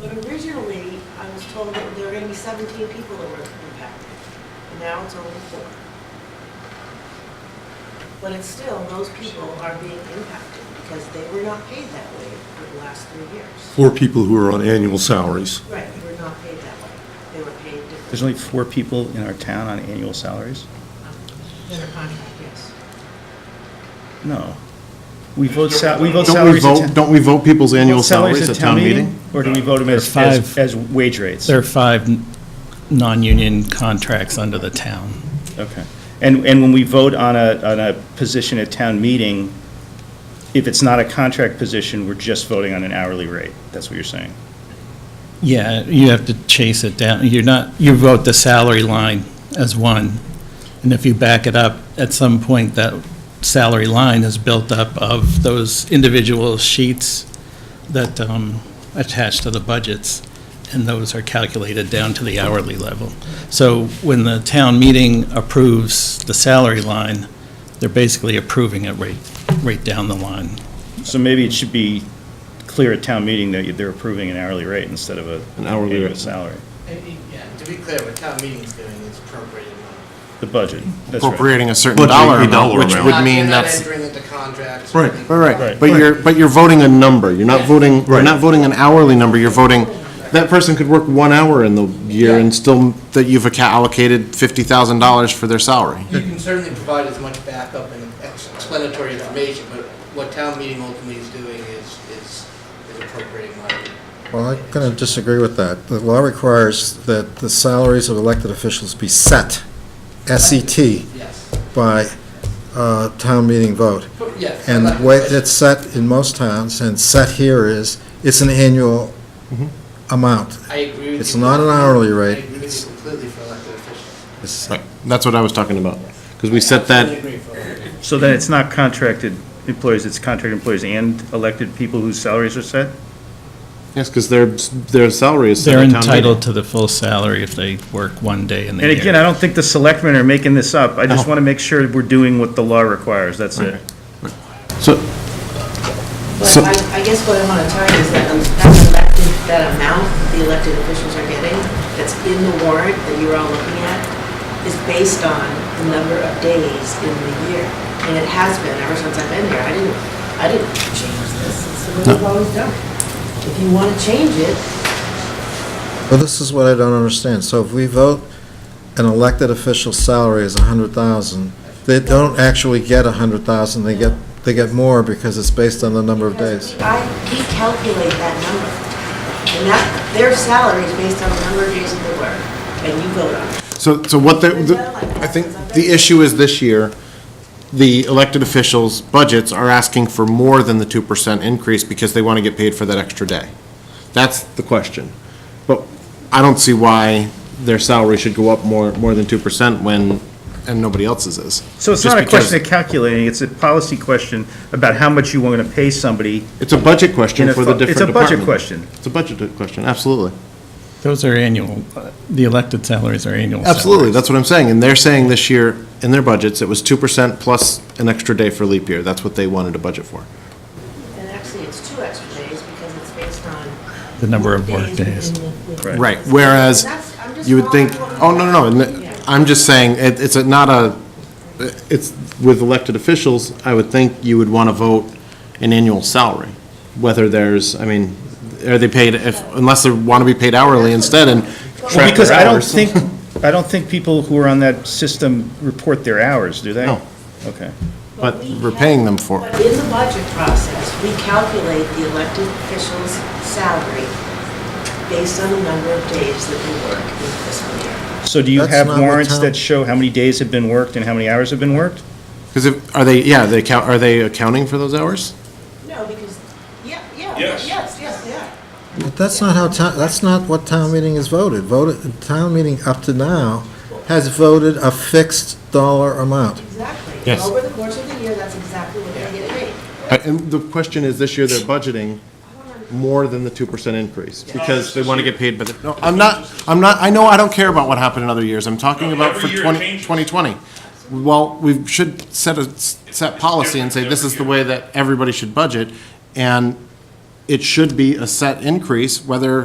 But originally, I was told that there were gonna be seventeen people that were impacted, and now it's only four. But it's still, those people are being impacted because they were not paid that way for the last three years. for people who are on annual salaries. Right, they were not paid that way. They were paid differently. There's only four people in our town on annual salaries? Um, Their contract, yes. No. We vote sal, we vote Don't we salaries at vote, town- don't we vote people's annual vote salaries at town meeting? Or do we vote them There are as, as, five. as wage rates? There are five n- non-union contracts under the town. Okay. And, and when we vote on a, on a position at town meeting, if it's not a contract position, we're just voting on an hourly rate. That's what you're saying? Yeah, you have to chase it down. You're not, you vote the salary line as one. And if you back it up, at some point, that salary line is built up of those individual sheets that um, attach to the budgets, and those are calculated down to the hourly level. So when the town meeting approves the salary line, they're basically approving it right, right down the line. So maybe it should be clear at town meeting that they're approving an hourly rate instead of a. An hourly annual rate. Salary, And, yeah, to be clear, what town meeting's doing is appropriating money. the budget. That's right. appropriating a certain But dollar a amount, dollar which amount. would Not- mean You're that's, not entering into contracts. Right, anything. right, right. Right. But you're, but you're voting a number, you're not voting, you're Right. not voting an hourly number, you're voting, that person could work one hour in the year and still, that you've acca- allocated fifty thousand dollars for their salary. You can certainly provide as much backup and ex- explanatory information, but what town meeting ultimately is doing is, is is appropriating money. Well, I'm going to disagree with that. The law requires that the salaries of elected officials be set, S-E-T, Yes, by uh, town meeting vote. But yes. And I'm the not- way it's set in most towns, and set here is, it's an annual amount. I agree with you. it's not an hourly rate. I agree with you completely for elected officials. It's- Right, that's what I was talking about, because we I set totally that, agree for it. So then it's not contracted employees, it's contracted employees and elected people whose salaries are set? yes, because their, their salary is set They're at town meeting. entitled to the full salary if they work one day in the And year. again, I don't think the selectmen are making this up. I just No. want to make sure we're doing what the law requires, that's it. So, But So- I, I guess what I want to tell you is that um, that elected, that amount that the elected officials are getting, that's in the warrant that you're all looking at, is based on the number of days in the year. And it has been ever since I've been here. I didn't, I didn't change this. It's the way we've always done it. If you want to change it, Well, this is what I don't understand. So if we vote an elected official's salary is 100,000, they don't actually get 100,000, they get, they get more because it's based on the number of days. I, we calculate that number. And that, their salary is based on the number of days in the work, and you vote on it. so, so what the, the- I think the issue is this year, the elected officials' budgets are asking for more than the two percent increase because they want to get paid for that extra day. That's the question. But I don't see why their salary should go up more, more than two percent when, and nobody else's is. So it's Just not a because- question of calculating, it's a policy question about how much you want to pay somebody. It's a budget question in a for fu- the different It's a budget department. question. It's a budget question, absolutely. Those are annual, uh, the elected salaries are annual salaries. Absolutely, that's what I'm saying. And they're saying this year, in their budgets, it was two percent plus an extra day for leap year. That's what they wanted to budget for. And actually, it's two extra days because it's based on. The number of work days. Right. Right, whereas That's- I'm just you would think, following oh, what- no, no, no, and Yeah. th- I'm just saying, it, it's a- not a, it's, with elected officials, I would think you would want to vote an annual salary, whether there's, I mean, are they paid, if, unless they want to be paid hourly instead and Well, track because their I don't hours. think, I don't think people who are on that system report their hours, do they? No. Okay. But we we're cal- paying them for But it. in the budget process, we calculate the elected official's salary based on the number of days that they work in the fiscal year. So do you That's have not what warrants town- that show how many days have been worked and how many hours have been worked? Because if, are they, yeah, they count, are they accounting for those hours? No, because, yeah, yeah, yes, yes, yeah. But that's not how, town- that's not what town meeting has voted. Voted, town meeting up to now has voted a fixed dollar amount. Exactly. Yes. Over the course of the year, that's exactly what they get paid. Uh, And the question is, this year they're budgeting more than the two percent increase, because they want to get paid, but, no, I'm not, I'm not, I know I don't care about what happened in other years, I'm talking No, about for every year it 20 2020. changes. Well, we should set a, s- set policy and say, different this every is the year. way that everybody should budget, and it should be a set increase, whether